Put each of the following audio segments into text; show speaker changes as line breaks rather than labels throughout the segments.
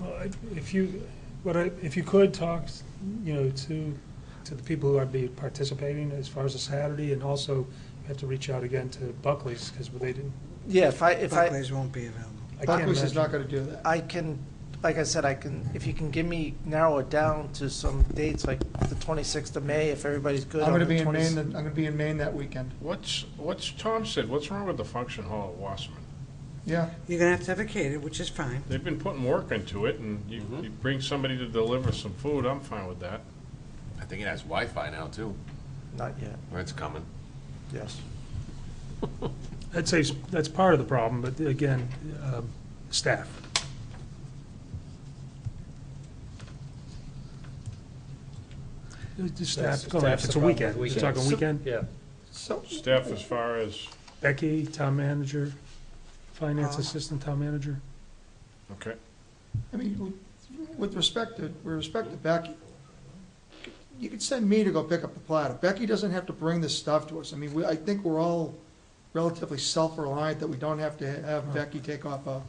Well, I- if you, what I, if you could talk, you know, to, to the people who are be participating as far as the Saturday, and also you have to reach out again to Buckley's, because they didn't,
Yeah, if I, if I,
Buckley's won't be available.
I can't
Buckley's is not
imagine.
gonna do that.
I can, like I said, I can, if you can give me, narrow it down to some dates, like the 26th of May, if everybody's good.
I'm
on
gonna
the
be in
20
Maine, the- I'm gonna be in Maine that weekend.
What's, what's, Tom said, what's wrong with the function hall at Wasserman?
Yeah,
You're gonna have to have a caterer, which is fine.
They've been putting work into it, and you, you bring somebody to deliver some food, I'm fine with that.
I think it has Wi-Fi now, too.
Not yet,
It's coming.
yes.
I'd say s- that's part of the problem, but again, um, staff. Just Staff, go ahead.
Staff's
if it's
the
a
problem with
weekend, you're
weekends.
talking weekend,
Yeah.
so,
Staff as far as,
Becky, town manager, finance
Uh.
assistant town manager.
okay,
I mean, with- with respect to, with respect to Becky, you could send me to go pick up the platter. Becky doesn't have to bring this stuff to us. I mean, we, I think we're all relatively self-reliant that we don't have to have Becky take off a,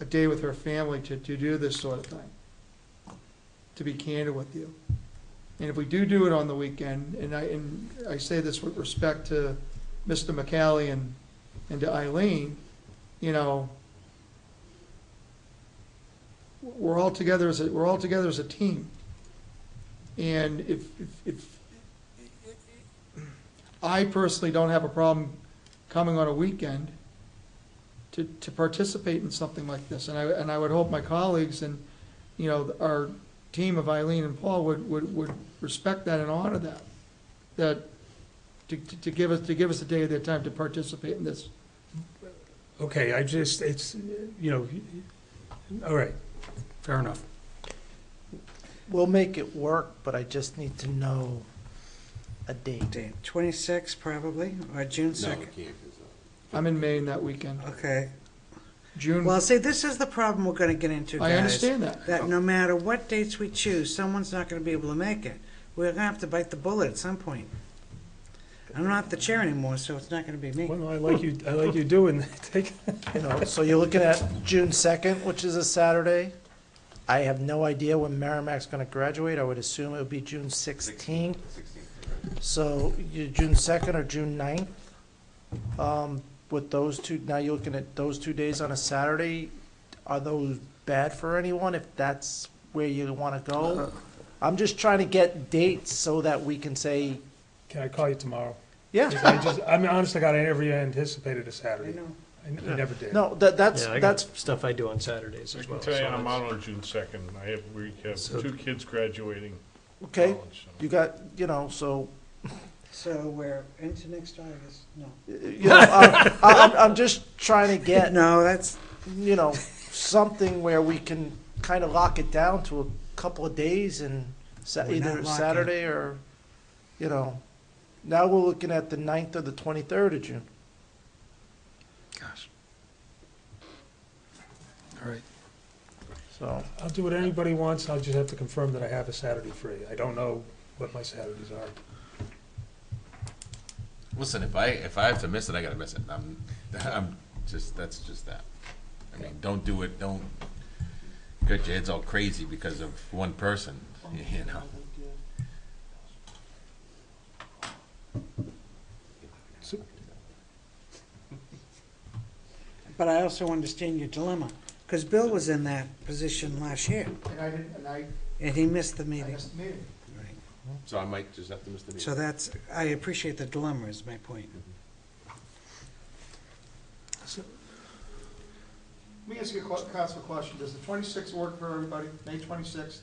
a day with her family to, to do this sort of thing. To be candid with you. And if we do do it on the weekend, and I, and I say this with respect to Mr. McCallie and, and to Eileen, you know, we're all together as a, we're all together as a team. And if, if, if, I personally don't have a problem coming on a weekend to, to participate in something like this, and I, and I would hope my colleagues and, you know, our team of Eileen and Paul would, would, would respect that and honor that. That, to, to to give us, to give us a day of their time to participate in this.
Okay, I just, it's, you know, all right, fair enough.
We'll make it work, but I just need to know a date.
Date, 26 probably, or June
No, it
2nd.
can't. 'cause, uh,
I'm in Maine that weekend,
Okay.
June,
Well, see, this is the problem we're gonna get into, guys.
I understand that.
That no matter what dates we choose, someone's not gonna be able to make it. We're gonna have to bite the bullet at some point. I'm not the chair anymore, so it's not gonna be me.
Well, no, I like you, I like you doing, that. take,
You know, so you're looking at June 2nd, which is a Saturday. I have no idea when Merrimack's going to graduate. I would assume it would be June 16th. So you, June 2nd or June 9th? Um, With those two, now you're looking at those two days on a Saturday. Are those bad for anyone if that's where you want to go? I'm just trying to get dates so that we can say,
can I call you tomorrow?
yeah,
I just, I mean, honestly, God, I never even anticipated a Saturday. I n- I never did.
no, that, that's,
Yeah, I
that's,
got stuff I do on Saturdays
I
as
can
well.
tell you,
so
I'm
that's-
out on June second, I have, we have
So-
two kids graduating
okay,
college. so-
you got, you know, so
So we're into next August, no.
you know, I, I, I'm, I'm just trying to get,
No, that's,
you know, something where we can kind of lock it down to a couple of days and sa-
We're not
either
locking.
Saturday or, you know, now we're looking at the 9th or the 23rd of June.
Gosh.
All right.
So,
I'll do what anybody wants, I'll just have to confirm that I have a Saturday free. I don't know what my Saturdays are.
Listen, if I, if I have to miss it, I gotta miss it. I'm, I'm just, that's just that. I mean, don't do it, don't get your heads all crazy because of one person, you know?
but I also understand your dilemma, because Bill was in that position last year,
And I didn't, and I,
and he missed the
I
meeting.
missed the meeting.
So I might just have to miss the
So
meeting.
that's, I appreciate the dilemma is my point.
Let me ask you a que- council question. Does the twenty-sixth work for everybody, May twenty-sixth?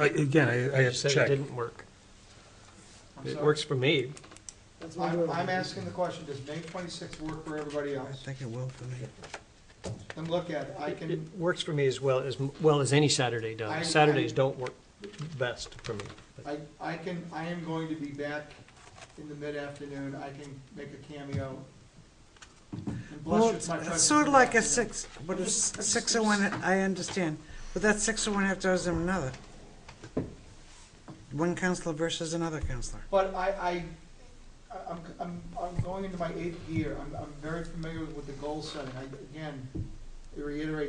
I- Again, I, I
You
have to
said it
check.
didn't work. It works for me.
I'm, I'm asking the question, does May twenty-sixth work for everybody
I
else?
think it will for me.
Then look at it. I
It
can,
it works for me as well, as well as any Saturday
I-
does. Saturdays don't work best for me. but
I, I can, I am going to be back in the mid-afternoon. I can make a cameo. And bless
Well,
you, it's my
it's
presence
sort
in
of
the
like a
afternoon.
six, but it's six of one, I understand, but that's six of one half dozen of another. One counselor versus another counselor.
But I, I, I- I'm, I'm, I'm going into my eighth year. I'm, I'm very familiar with the goal setting. I, again, reiterate